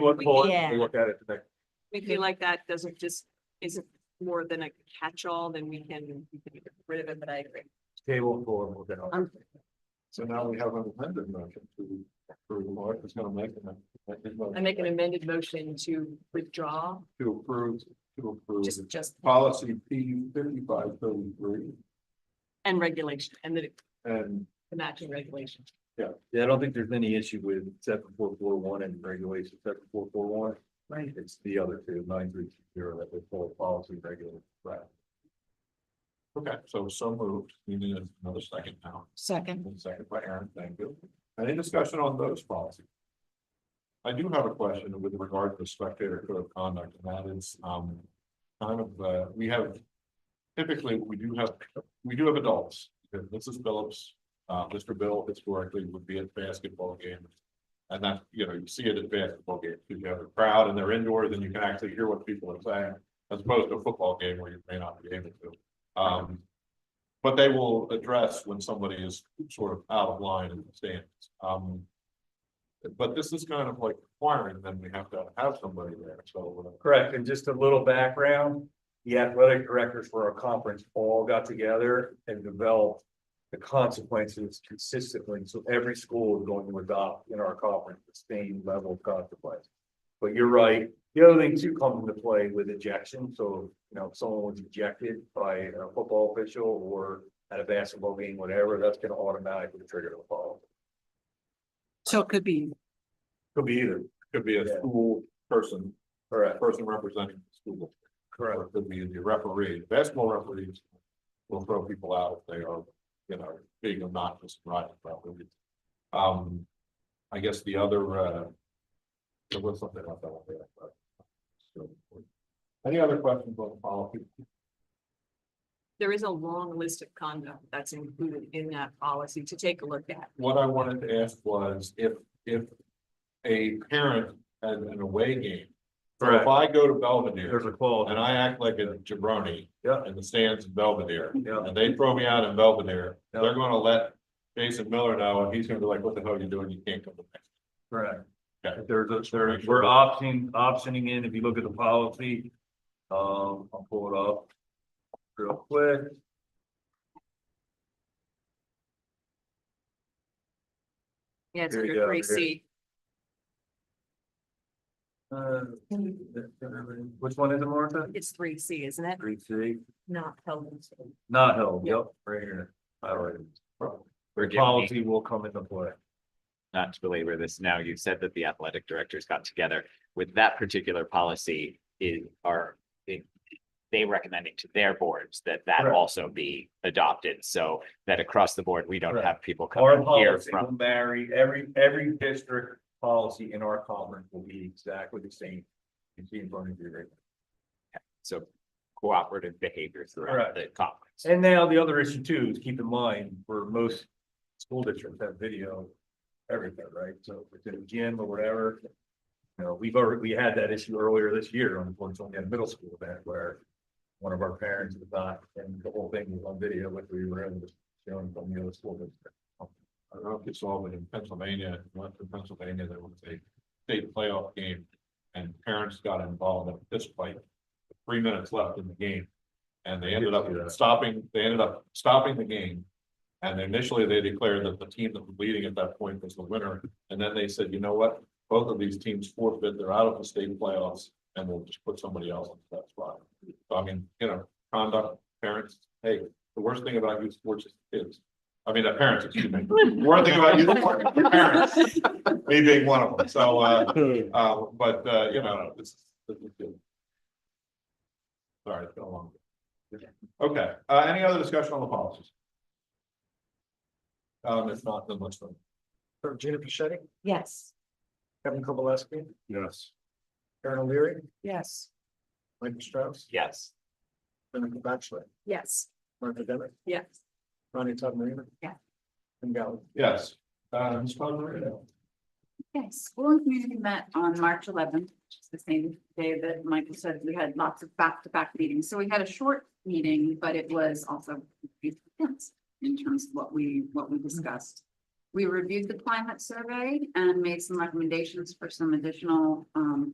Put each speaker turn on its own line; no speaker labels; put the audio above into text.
One bullet,
Yeah.
we'll look at it today.
We feel like that doesn't just, isn't more than a catch-all, then we can we can get rid of it, but I agree.
Table four, we'll get on.
Um,
So now we have an amended motion to, approve. Mark is gonna make an. make his
I
motion
make an amended motion to withdraw,
To approve, to approve
just, just,
policy P fifty-five thirty-three
and regulation, and the
and
the matching regulation.
Yeah, I don't think there's any issue with seven four four one and regulation seven four four one.
Right.
It's the other two, nine three two zero, that would follow policy regular. Right.
Okay, so so moved. We need another second now.
Second.
And Second by Aaron, thank you. Any discussion on those policies? I do have a question with regard to the spectator code of conduct, and that is, um, kind of, uh, we have. Typically, we do have, we do have adults. Mrs. Phillips, uh, Mr. Bill historically would be at basketball games. And that, you know, you see it at basketball games, because you have a crowd and they're indoors and you can actually hear what people are saying, as opposed to a football game where you may not be able to. Um, but they will address when somebody is sort of out of line in the stands. Um. But this is kind of like requiring them, we have to have somebody there, so. uh.
Correct, and just a little background, the athletic directors for our conference all got together and developed. The consequences consistently, so every school is going to adopt in our conference the same level of consequence. But you're right, the other thing too comes into play with ejection, so, you know, if someone was ejected by a football official or. At a basketball game, whatever, that's gonna automatically trigger the fall,
So it could be,
could be either,
Could be a
Yeah.
school person, a
correct,
person representing the school, or it could be the referee, basketball referees. Will throw people out if they are, you know, being obnoxious, right, probably. Um, I guess the other, uh. There was something else I wanted to ask about. So, Any other questions on the policy?
There is a long list of conduct that's included in that policy to take a look at.
what I wanted to ask was if, if a parent at an away game. So if
correct,
I go to
there's
Belvedere
a clause,
and I act like a jabroni
Yeah.
in the stands in Belvedere,
yeah,
and they throw me out in Belvedere,
Yeah.
they're gonna let Jason Miller know, and he's gonna be like, what the hell are you doing? You can't come to next.
correct.
Okay.
There's a, there, we're opting, optioning in, if you look at the policy, um, I'll pull it up. Real quick.
Yeah, it's
Here you
under
go,
three
here.
C,
Uh, Which one is it, Martha?
it's three C, isn't it?
Three C,
Not held.
not held, yep, right here. All right.
Forgive me,
Policy will come into play.
not to belabor this now. You said that the athletic directors got together with that particular policy is are they- they recommending to their boards that that
Correct.
also be adopted so that across the board, we don't
Correct.
have people
Our
coming here
policy
from.
will vary, every, every district policy in our conference will be exactly the same. You see in front of you right now.
So cooperative behavior
Correct.
throughout the conference.
And now the other issue too is keep in mind, where most school districts have video, everything, right? So if it's in a gym or whatever. You know, we've already, we had that issue earlier this year, unfortunately, at a middle school event where one of our parents was not, and the whole thing was on video, which we were able to show from the other school district.
I don't know if you saw, but in Pennsylvania, Western Pennsylvania, there was a state playoff game. And parents got involved in this fight, three minutes left in the game. And they ended up stopping, they ended up stopping the game. And initially, they declared that the team that was leading at that point was the winner, and then they said, you know what? Both of these teams forfeit, they're out of the state playoffs, and we'll just put somebody else into that spot. So I mean, you know, conduct, parents, hey, the worst thing about youth sports is kids. I mean, the parents, excuse me. One thing about youth sports is parents, me being one of them, so, uh, uh, but, uh, you know, this. this is good. Sorry, it's been a long. Okay, uh, any other discussion on the policies? Um, if not, then let's. vote.
Gina Pichetti,
yes,
Kevin Kowalski,
Yes.
Aaron O'Leary,
yes.
Michael Strauss,
Yes,
Senator Batchelor,
Yes.
Martha Demick,
Yes.
Ronnie Todd Marino.
Yeah.
And Gallagher.
Yes, uh, Ms. Bonner,
Yes, school and community met on March eleventh, which is the same day that Michael said we had lots of back-to-back meetings. So we had a short meeting, but it was also pretty intense in terms of what we, what we discussed.
We reviewed the climate survey and made some recommendations for some additional um